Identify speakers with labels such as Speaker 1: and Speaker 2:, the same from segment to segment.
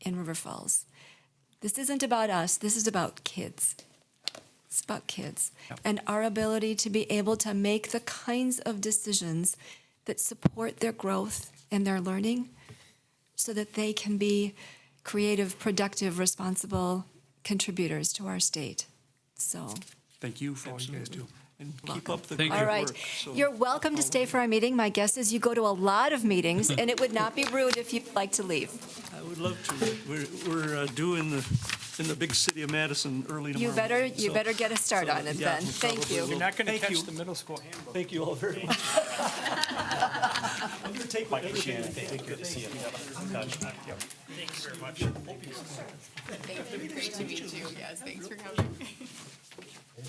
Speaker 1: in River Falls. This isn't about us, this is about kids. It's about kids and our ability to be able to make the kinds of decisions that support their growth and their learning so that they can be creative, productive, responsible contributors to our state. So,
Speaker 2: Thank you for all you guys do. And keep up the good
Speaker 1: all
Speaker 2: work.
Speaker 1: right. You're welcome to stay for our meeting. My guess is you go to a lot of meetings, and it would not be rude if you'd like to leave.
Speaker 2: I would love to. We're, we're uh, due in the, in the big city of Madison early tomorrow.
Speaker 1: You better,
Speaker 2: morning,
Speaker 1: you
Speaker 2: so-
Speaker 1: better get a start
Speaker 2: so,
Speaker 1: on it
Speaker 2: yeah,
Speaker 1: then.
Speaker 2: we
Speaker 1: Thank
Speaker 2: probably
Speaker 1: you.
Speaker 2: will.
Speaker 3: Not going to
Speaker 2: Thank you.
Speaker 3: catch the middle school handbook.
Speaker 2: Thank you all very much. I'm going to take my everything. Thank you.
Speaker 3: Thank you very much.
Speaker 4: Great to meet you, yes, thanks for coming.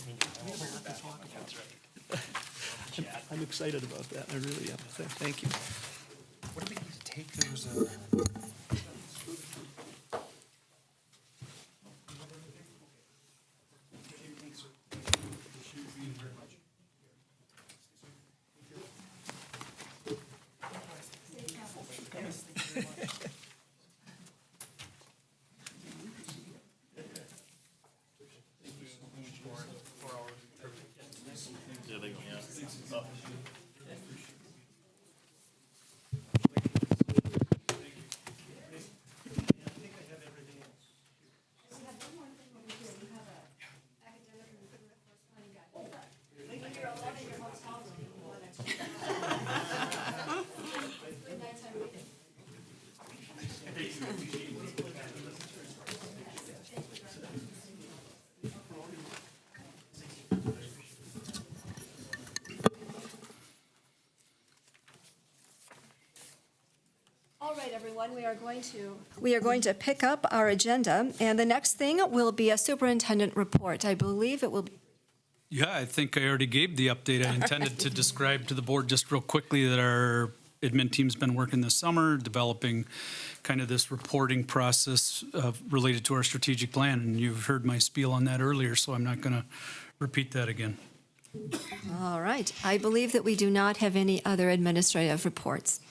Speaker 2: I'm excited about that. I really am. Th- Thank you.
Speaker 3: What did we need to take? There was a.
Speaker 1: All right, everyone, we are going to. We are going to pick up our agenda, and the next thing will be a superintendent report. I believe it will be
Speaker 5: Yeah, I think I already gave the update I intended to describe to the board just real quickly that our admin team's been working this summer, developing kind of this reporting process of, related to our strategic plan. And you've heard my spiel on that earlier, so I'm not going to repeat that again.
Speaker 1: All right. I believe that we do not have any other administrative reports.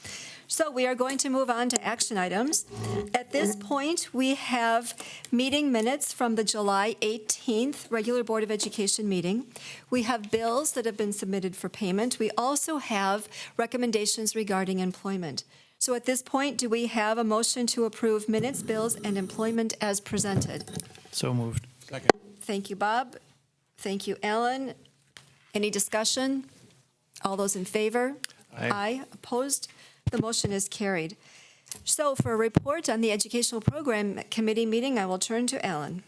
Speaker 1: So we are going to move on to action items. At this point, we have meeting minutes from the July 18th regular Board of Education meeting. We have bills that have been submitted for payment. We also have recommendations regarding employment. So at this point, do we have a motion to approve minutes, bills, and employment as presented?
Speaker 6: So moved.
Speaker 1: Thank you, Bob. Thank you, Alan. Any discussion? All those in favor?
Speaker 6: Aye.
Speaker 1: Opposed? The motion is carried. So for a report on the Educational Program Committee meeting, I will turn to Alan.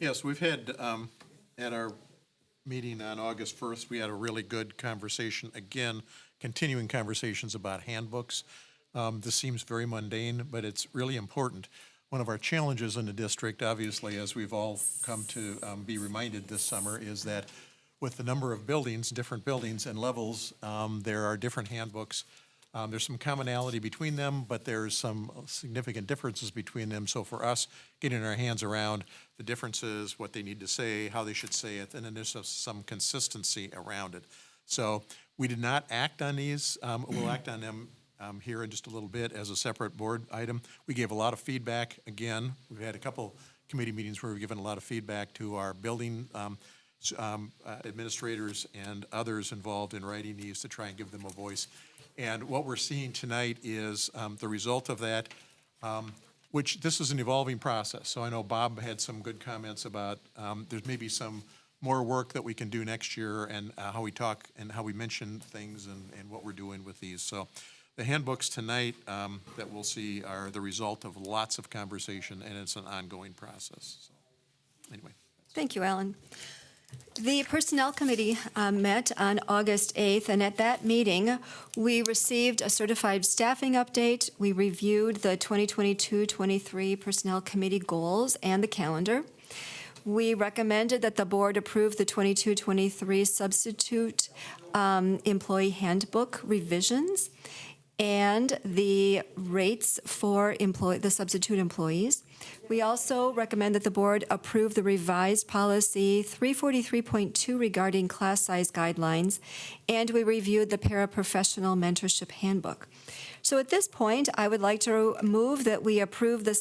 Speaker 7: Yes, we've had, um, at our meeting on August 1st, we had a really good conversation, again, continuing conversations about handbooks. Um, This seems very mundane, but it's really important. One of our challenges in the district, obviously, as we've all come to um, be reminded this summer, is that with the number of buildings, different buildings and levels, um, there are different handbooks. Um, There's some commonality between them, but there's some significant differences between them. So for us, getting our hands around the differences, what they need to say, how they should say it, and then there's some- some consistency around it. So we did not act on these. Um, We'll act on them um, here in just a little bit as a separate board item. We gave a lot of feedback. Again, we've had a couple committee meetings where we've given a lot of feedback to our building um, s- um, uh, administrators and others involved in writing these to try and give them a voice. And what we're seeing tonight is um, the result of that, um, which, this is an evolving process. So I know Bob had some good comments about, um, there's maybe some more work that we can do next year and uh, how we talk and how we mention things and, and what we're doing with these. So the handbooks tonight um, that we'll see are the result of lots of conversation, and it's an ongoing process. So, Anyway.
Speaker 1: Thank you, Alan. The Personnel Committee um, met on August 8th, and at that meeting, we received a certified staffing update. We reviewed the 2022-23 Personnel Committee goals and the calendar. We recommended that the board approve the 22-23 substitute um, employee handbook revisions and the rates for employ, the substitute employees. We also recommend that the board approve the revised policy 343.2 regarding class size guidelines, and we reviewed the paraprofessional mentorship handbook. So at this point, I would like to move that we approve the